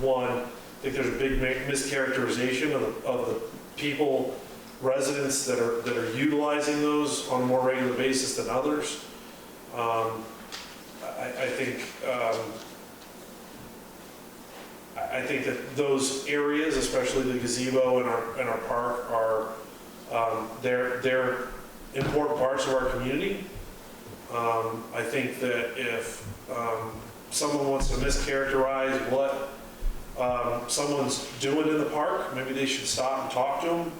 one, I think there's a big mi- mischaracterization of, of the people, residents that are, that are utilizing those on a more regular basis than others. Um, I, I think, um, I, I think that those areas, especially the gazebo and our, and our park, are, um, they're, they're important parts of our community. Um, I think that if um, someone wants to mischaracterize what um, someone's doing in the park, maybe they should stop and talk to them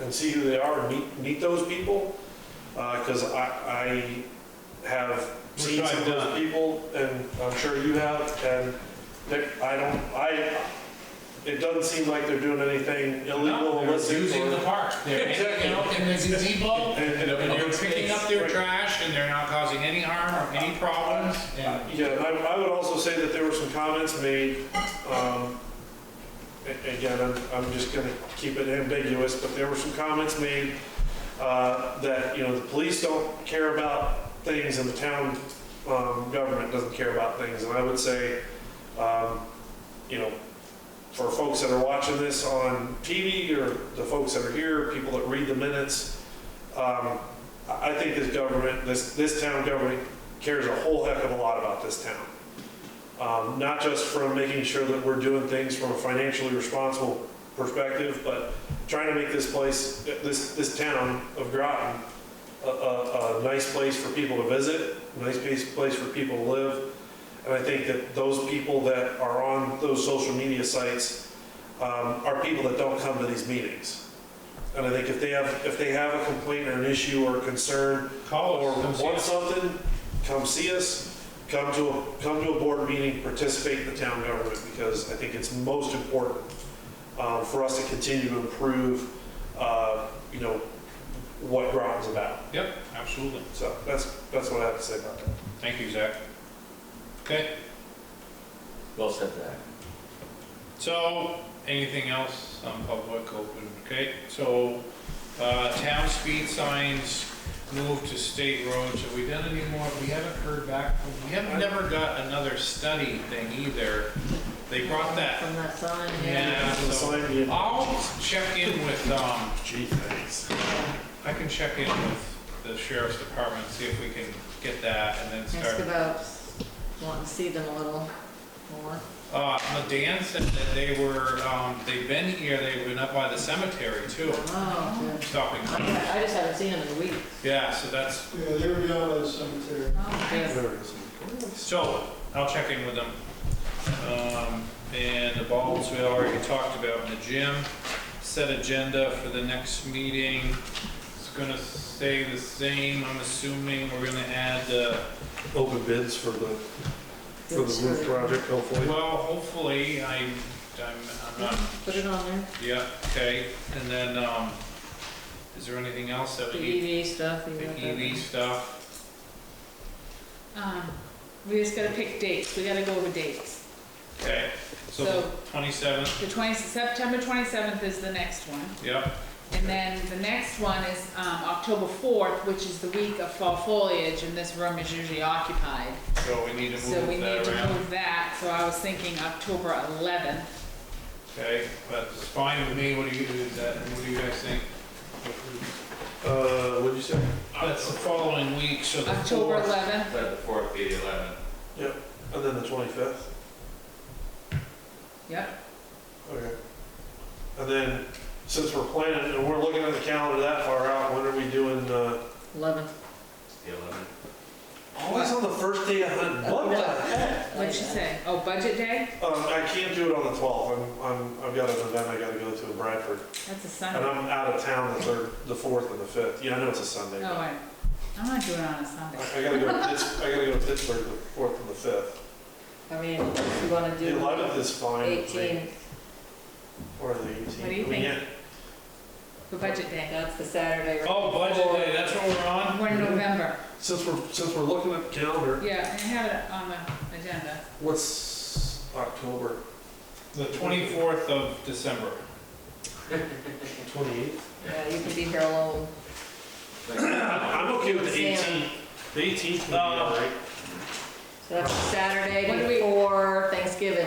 and see who they are and meet, meet those people. Because I, I have seen Which some I've of those done. people, and I'm sure you have, and they- I don't, I, it doesn't seem like they're doing anything illegal, No, they're illicit. using or- the park. They're hanging out in the gazebo, And- and- and they're picking up their trash, and they're not causing any harm or any problems. And Yeah, and I, I would also say that there were some comments made, um, a- again, I'm, I'm just gonna keep it ambiguous, but there were some comments made, uh, that, you know, the police don't care about things and the town, um, government doesn't care about things, and I would say, um, you know, for folks that are watching this on TV or the folks that are here, people that read the minutes, um, I I think this government, this, this town government cares a whole heck of a lot about this town. Um, not just from making sure that we're doing things from a financially responsible perspective, but trying to make this place, this, this town of Groton, a, a, a nice place for people to visit, a nice place, place for people to live. And I think that those people that are on those social media sites, um, are people that don't come to these meetings. And I think if they have, if they have a complaint or an issue or a concern, Call or us, come see want us. something, come see us, come to, a come to a board meeting, participate in the town government, because I think it's most important um, for us to continue to improve, uh, you know, what Groton's about. Yep, absolutely. So that's, that's what I have to say about that. Thank you, Zach. Okay, Well said, Zach. so anything else on public open? Okay, so uh, town speed signs moved to state roads. Have we done any more? We haven't heard back. from- We haven't never got another study thing either. They brought that From that sign, yeah. Yeah, so Sign me in. I'll check in with, um, Gee, thanks. I can check in with the sheriff's department, see if we can get that and then Ask start. about wanting to see them a little more. Uh, no, Dan said that they were, um, they've been here, they've been up by the cemetery too, Oh, good. stopping. I I just haven't seen them in weeks. Yeah, so that's, Yeah, they were down by the cemetery. Oh, good. There it is. so I'll check in with them. Um, and the bulbs we already talked about in the gym. Set agenda for the next meeting. It's gonna stay the same, I'm assuming. We're gonna add the Open bids for the, for the Good, roof sure. project, hopefully. Well, hopefully, I, I'm, I'm not, Put it on there. yeah, okay, and then, um, is there anything else that we need? The EV stuff. you E The got that. EV stuff, Um, we just gotta pick dates, we gotta go over dates. okay, so So- twenty-seventh, The twenty, September twenty-seventh is the next one, yep, and then the next one is, um, October fourth, which is the week of fall foliage, and this room is usually occupied. so we need to So we move need that to around, move that, so I was thinking October eleventh. okay, that's fine with me, what do you, is that, what do you guys think? Uh, what'd you say? That's the following week, so the October fourth, eleventh, Let the fourth be the eleventh. And then the 25th? yep, Okay. And then, since we're planning, and we're looking at the calendar that far out, when are we doing, uh? Eleven. The eleventh. Always on the first day of hunting. What the heck? what'd you say, oh, budget day, Um, I can't do it on the twelfth, I'm, I'm, I've got an event I gotta go to in Bradford, that's a and Sunday, I'm out of town the third, the fourth and the fifth, yeah, I know it's a Sunday, oh, but I, I'm not doing it on a Sunday. I I gotta go, to Pitts- I gotta go to Pittsburgh the fourth and the fifth. I mean, if you wanna The eleventh do is fine. with me. eighteen, Or the eighteenth. What do you think? For budget day. that's the Saturday. right oh, budget before. day, that's what we're on? We're in November. Since we're, since we're looking at the calendar, Yeah, I have it on the agenda. what's October The twenty-fourth of December, twenty-eighth? Yeah, you can be here alone. I'm okay with the Sam. eighteenth, the eighteenth would be Uh, all right. So that's the What do Saturday we- before Thanksgiving.